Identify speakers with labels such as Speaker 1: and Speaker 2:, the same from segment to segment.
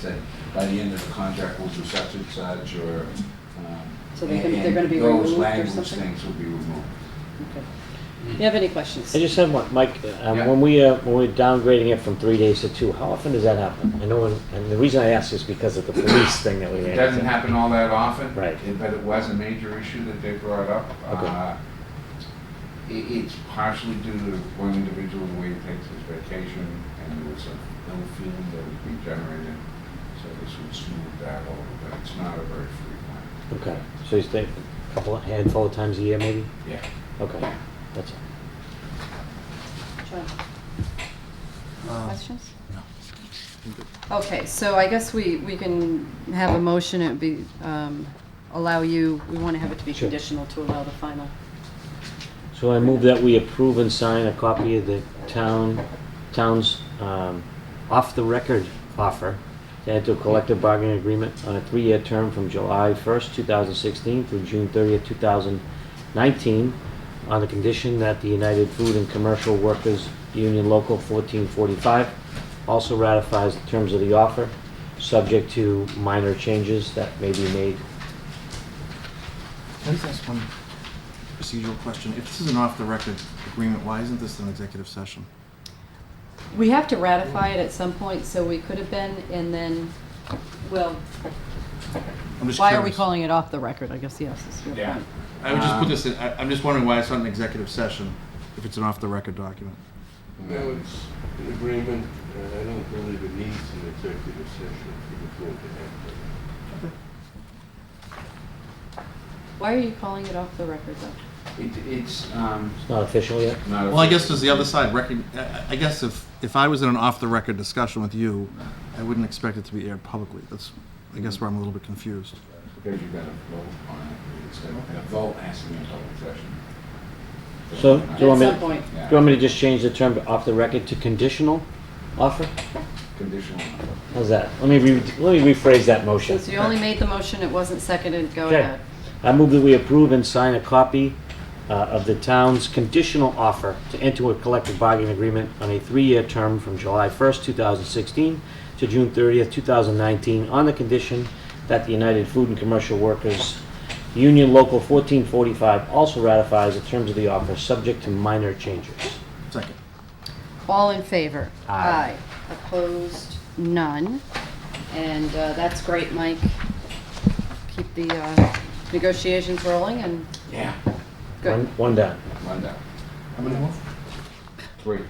Speaker 1: Say, by the end of the contract rules of such and such, or... um,
Speaker 2: So they can-
Speaker 1: and-
Speaker 2: they're gonna be
Speaker 1: and
Speaker 2: removed
Speaker 1: Those
Speaker 2: or
Speaker 1: language
Speaker 2: something?
Speaker 1: things will be removed.
Speaker 2: Okay. You have any questions?
Speaker 3: I just have one, Mike, um,
Speaker 1: Yeah.
Speaker 3: when we, uh, when we're downgrading it from three days to two, how often does that happen? I know, when- and the reason I ask is because of the police thing that we
Speaker 1: It
Speaker 3: had.
Speaker 1: doesn't happen all that often.
Speaker 3: Right.
Speaker 1: it- But it was a major issue that they brought up.
Speaker 3: Okay.
Speaker 1: Uh, i it's partially due to one individual, the way he takes his vacation, and there was an ill feeling that would be generated, so this would smooth that over, but it's not a very frequent.
Speaker 3: Okay, so you stay a couple, handful of times a year maybe?
Speaker 1: Yeah.
Speaker 3: Okay, that's all.
Speaker 2: John?
Speaker 4: Uh,
Speaker 2: Questions? No. Okay, so I guess we, we can have a motion, it'd be, um, allow you, we want to have it to be
Speaker 3: Sure.
Speaker 2: conditional to allow the final.
Speaker 3: So I move that we approve and sign a copy of the town, town's, um, off-the-record offer to enter a collective bargaining agreement on a three-year term from July first, two thousand sixteen through June thirtieth, two thousand nineteen, on the condition that the United Food and Commercial Workers Union Local fourteen forty-five also ratifies the terms of the offer, subject to minor changes that may be made.
Speaker 4: Can I just ask one procedural question? If this is an off-the-record agreement, why isn't this an executive session?
Speaker 2: We have to ratify it at some point, so we could have been, and then, well,
Speaker 4: I'm just
Speaker 2: why are we
Speaker 4: curious.
Speaker 2: calling Uh, it off the record, I guess, yes, is your
Speaker 1: Yeah.
Speaker 2: point.
Speaker 4: I would just put this in, I, I'm just wondering why it's not an executive session if it's an off-the-record document.
Speaker 5: No, it's an agreement, and I don't believe it needs an executive session for the board to
Speaker 2: Why are you calling it off the record, though?
Speaker 1: It, it's, um,
Speaker 3: It's not official yet?
Speaker 1: not a...
Speaker 4: Well, I guess does the other side rec, I, I guess if, if I was in an off-the-record discussion with you, I wouldn't expect it to be aired publicly. That's, I guess where I'm a little bit confused.
Speaker 1: Because you've got to vote on it, it's a a vote has to be in public session.
Speaker 3: So, do you
Speaker 2: At
Speaker 3: want me,
Speaker 2: some
Speaker 3: do
Speaker 2: point,
Speaker 1: Yeah,
Speaker 3: you want me to just change the term off the record to conditional offer?
Speaker 1: Conditional.
Speaker 3: How's that? Let me, re- let me rephrase that motion.
Speaker 2: since you only made the motion, it wasn't seconded, go
Speaker 3: Okay.
Speaker 2: ahead.
Speaker 3: I move that we approve and sign a copy uh, of the town's conditional offer to enter a collective bargaining agreement on a three-year term from July 1st, 2016 to June 30th, 2019, on the condition that the United Food and Commercial Workers Union Local 1445 also ratifies the terms of the offer, subject to minor changes.
Speaker 4: Second.
Speaker 2: All in favor?
Speaker 3: Aye.
Speaker 2: Opposed? None. And uh, that's great, Mike. Keep the uh, negotiations rolling and
Speaker 1: Yeah.
Speaker 2: good.
Speaker 3: One- One done.
Speaker 1: One down.
Speaker 4: How many more?
Speaker 1: Three.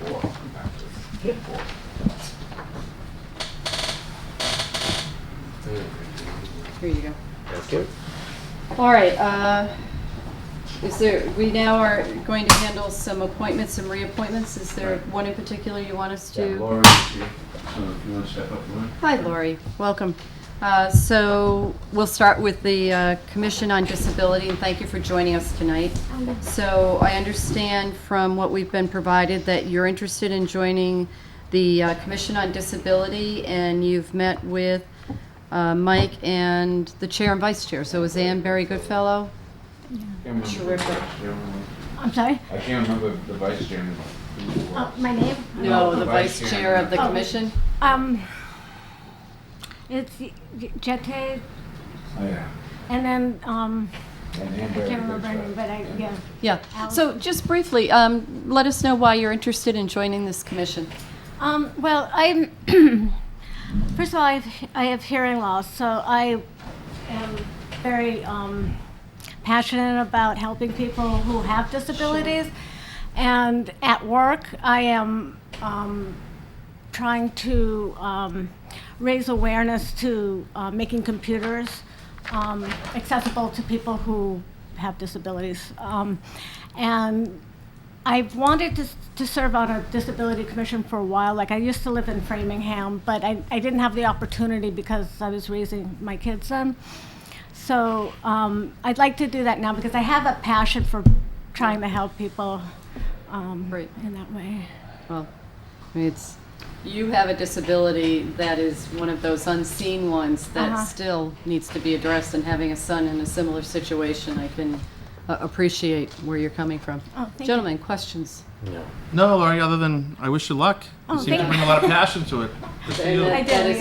Speaker 1: Four. actually. Four.
Speaker 5: handle it.
Speaker 2: Here you go.
Speaker 3: Thank you.
Speaker 2: All right, uh, is there, we now are going to handle some appointments, some reappointments. Is there one in particular you want us to?
Speaker 1: Laura's here, so if you want to step up, Laura.
Speaker 2: Hi, Lori. Welcome. Uh, So we'll start with the uh, Commission on Disability, and thank you for joining us tonight. So I understand from what we've been provided that you're interested in joining the uh, Commission on Disability, and you've met with uh, Mike and the Chair and Vice Chair. So is Ann Barry Goodfellow?
Speaker 1: Can't remember the
Speaker 2: Terrific.
Speaker 1: vice chairman.
Speaker 6: I'm sorry?
Speaker 1: I can't remember the vice chairman. who it
Speaker 6: Uh,
Speaker 1: was.
Speaker 6: my name?
Speaker 1: No, the Vice Chair
Speaker 2: of the
Speaker 6: Oh.
Speaker 2: Commission?
Speaker 6: Um, it's Jete,
Speaker 1: Oh, yeah.
Speaker 6: and then, um,
Speaker 1: And
Speaker 6: I
Speaker 1: Amber.
Speaker 6: can't remember her name, but I, yeah.
Speaker 2: Yeah. So just briefly, um, let us know why you're interested in joining this commission.
Speaker 6: Um, well, I'm, first of all, I have, I have hearing loss, so I am very um, passionate about helping people who have disabilities. And at work, I am um, trying to um, raise awareness to uh, making computers um, accessible to people who have disabilities. Um, and I've wanted to, to serve on a disability commission for a while. Like, I used to live in Framingham, but I, I didn't have the opportunity because I was raising my kids then. So um, I'd like to do that now because I have a passion for trying to help people um,
Speaker 2: Right.
Speaker 6: in that way.
Speaker 2: Well, I mean, it's, you have a disability that is one of those unseen ones that
Speaker 6: Uh-huh.
Speaker 2: still needs to be addressed, and having a son in a similar situation, I can uh, appreciate where you're coming from.
Speaker 6: Oh, thank you.
Speaker 2: Gentlemen, questions?
Speaker 3: No.
Speaker 4: No, Laurie, other than I wish you luck. You
Speaker 6: Oh,
Speaker 4: seem to
Speaker 6: thank
Speaker 4: bring a lot of passion to it. Good for you.
Speaker 6: I
Speaker 2: That
Speaker 6: did.
Speaker 2: is